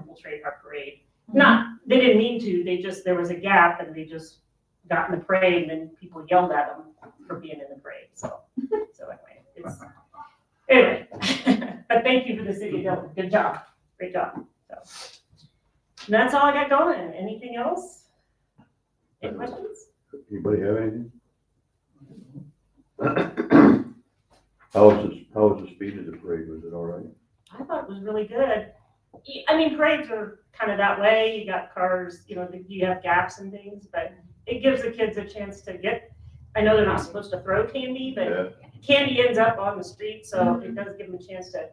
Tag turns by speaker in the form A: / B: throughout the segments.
A: infiltrate our parade. Not, they didn't mean to, they just, there was a gap and they just got in the parade and then people yelled at them for being in the parade, so, so anyway, it's, anyway. But thank you for the city, Dylan, good job, great job, so. And that's all I got going, anything else? Any questions?
B: Anybody have anything? How was this, how was the speed of the parade? Was it all right?
A: I thought it was really good. Y- I mean, parades are kind of that way. You got cars, you know, you have gaps and things, but it gives the kids a chance to get. I know they're not supposed to throw candy, but
B: Yeah.
A: candy ends up on the street, so it does give them a chance to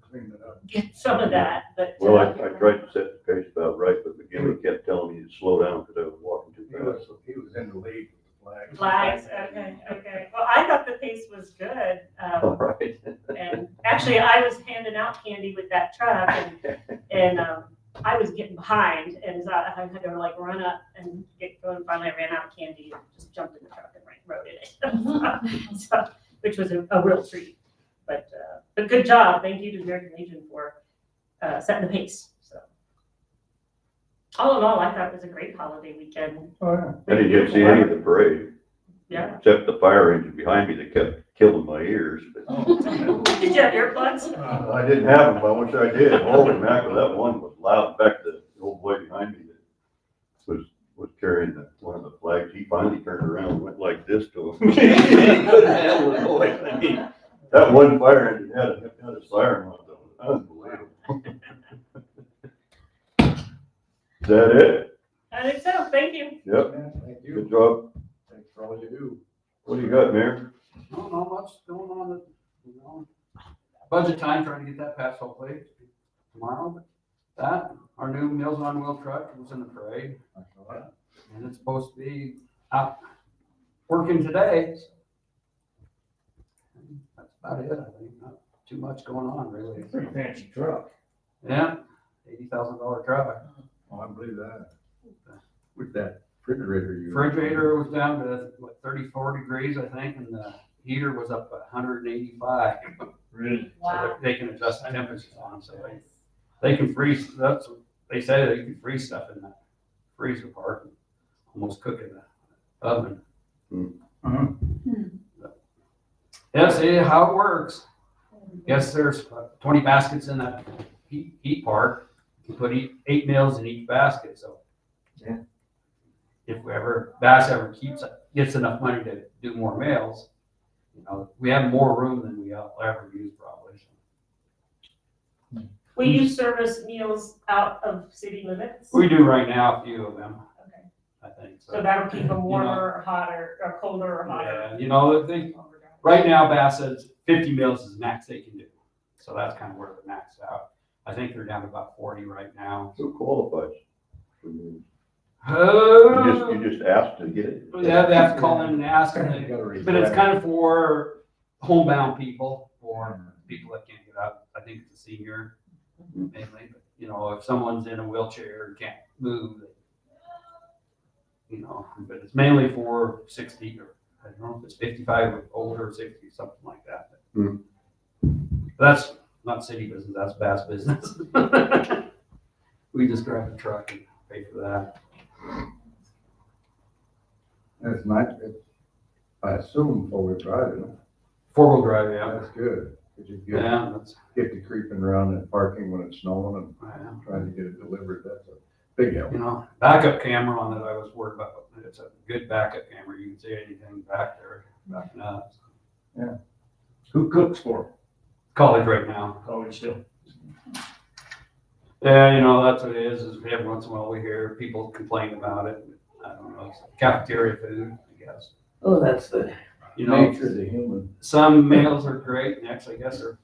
C: clean it up.
A: get some of that. But uh,
B: Well, I, I tried to set the pace about right, but McGinley kept telling me to slow down because I was walking too
C: He
B: fast.
C: was, he was in the lead with the flags.
A: flags.
D: uh,
A: Okay, okay. Well, I thought the pace was good. Um,
B: All right.
A: and actually, I was handing out candy with that truck, and, and um, I was getting behind, and so I had to like run up and get going. Finally, I ran out of candy and just jumped in the truck and like rode in it, so, which was a, a real treat. But uh, but good job, thank you to American Legion for uh, setting the pace. So all in all, I thought it was a great holiday weekend.
C: Oh, yeah.
B: I didn't get to see any of the parade.
A: Yeah.
B: Except the fire engine behind me that kept killing my ears.
C: Oh.
B: but-
A: Did you have earplugs?
C: Uh,
B: I didn't have them, but I wish I did. Holy mackerel, that one was loud. In fact, the old boy behind me that was, was carrying the, one of the flags, he finally turned around and went like this to him. He couldn't handle the noise. I mean, That one fire engine had a, had a siren on it. That was Unbelievable. Is that it?
A: I think so. Thank you.
B: Yep.
C: Thank
B: Good
C: you.
B: job.
C: Thanks for all you do.
B: What do you got, Mayor?
D: Don't know much going on, at- you know. Budget time, trying to get that passed hopefully tomorrow. but That, our new Meals on Wheel truck was in the parade, and it's supposed to be out working today. That's about it, I think, not too much going on really.
C: Pretty fancy truck.
D: Yeah, eighty thousand dollar truck.
C: Oh, I believe that. With that refrigerator you.
D: Refrigerator was down to, what, thirty-four degrees, I think, and the heater was up a hundred and eighty-five.
C: Really?
D: So they they can adjust the temperatures on, them, so they, they can freeze, that's, what they say they can freeze stuff in the freezer part, and almost cook in the oven. Mm-hmm.
C: Uh-huh.
D: Yeah, see how it works. Guess there's about twenty baskets in that heat, heat part, you put eight, eight meals in each basket, so.
C: Yeah.
D: If we ever, Bass ever keeps, gets enough money to do more meals, you know, we have more room than we ever use probably, so.
A: Will you service meals out of city limits?
D: Mm. We do right now, a few of them,
A: Okay.
D: I think,
A: So
D: so.
A: that'll keep them warmer or hotter, or colder or hotter.
D: Yeah, You know, I think, right now, Bass says fifty meals is the max they can do, so that's kind of where they're maxed out. I think they're down to about forty right now.
B: Who qualifies? You just,
D: Oh,
B: you just asked to get it.
D: they have, they have to call in and ask, and
C: You
D: they-
C: gotta read
D: but it's
C: that.
D: kind of for homebound people, or people that can't get up, I think it's a senior mainly, but, you know, if someone's in a wheelchair and can't move, they- you know, but it's mainly for sixty or, I don't know if it's fifty-five or older, sixty, something like that.
B: Hmm.
D: That's not city business, that's Bass business. We just grab a truck and pay for that.
C: It's nice, it's, I assume four-wheel drive, isn't it?
D: Four-wheel drive, yeah.
C: that's good. Cause you get,
D: Yeah, that's,
C: get to creeping around and parking when it's snowing
D: yeah.
C: and trying to get it delivered, that's a big help.
D: you know, backup camera on that I was worried about, but it's a good backup camera, you can see anything back there, backing up.
E: Who cooks for him?
D: College right now,
E: College Hill.
D: yeah, you know, that's what it is, is every once in a while we hear people complain about it, I don't know, it's cafeteria food, I guess.
E: Oh, that's the.
D: You know,
C: Nature of the human,
D: some meals are great, and actually, I guess are,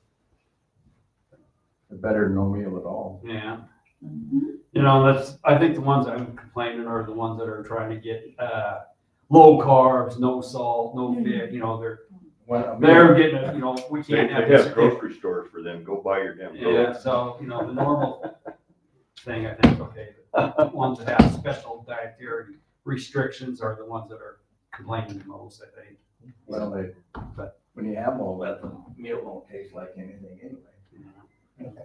C: better than no meal at all.
D: yeah. You know, that's, I think the ones I'm complaining are the ones that are trying to get, uh, low carbs, no salt, no fat, you know, they're,
C: When a meal-
D: they're getting, it, you know, we
B: They
D: can't have
B: they
D: this.
B: have grocery stores for them. Go buy your damn groceries.
D: Yeah, so, you know, the normal thing, I think, okay, the ones that have special dietary restrictions are the ones that are complaining the most, I think.
C: Well, they, but when you have all that, the meal won't taste like anything anyway.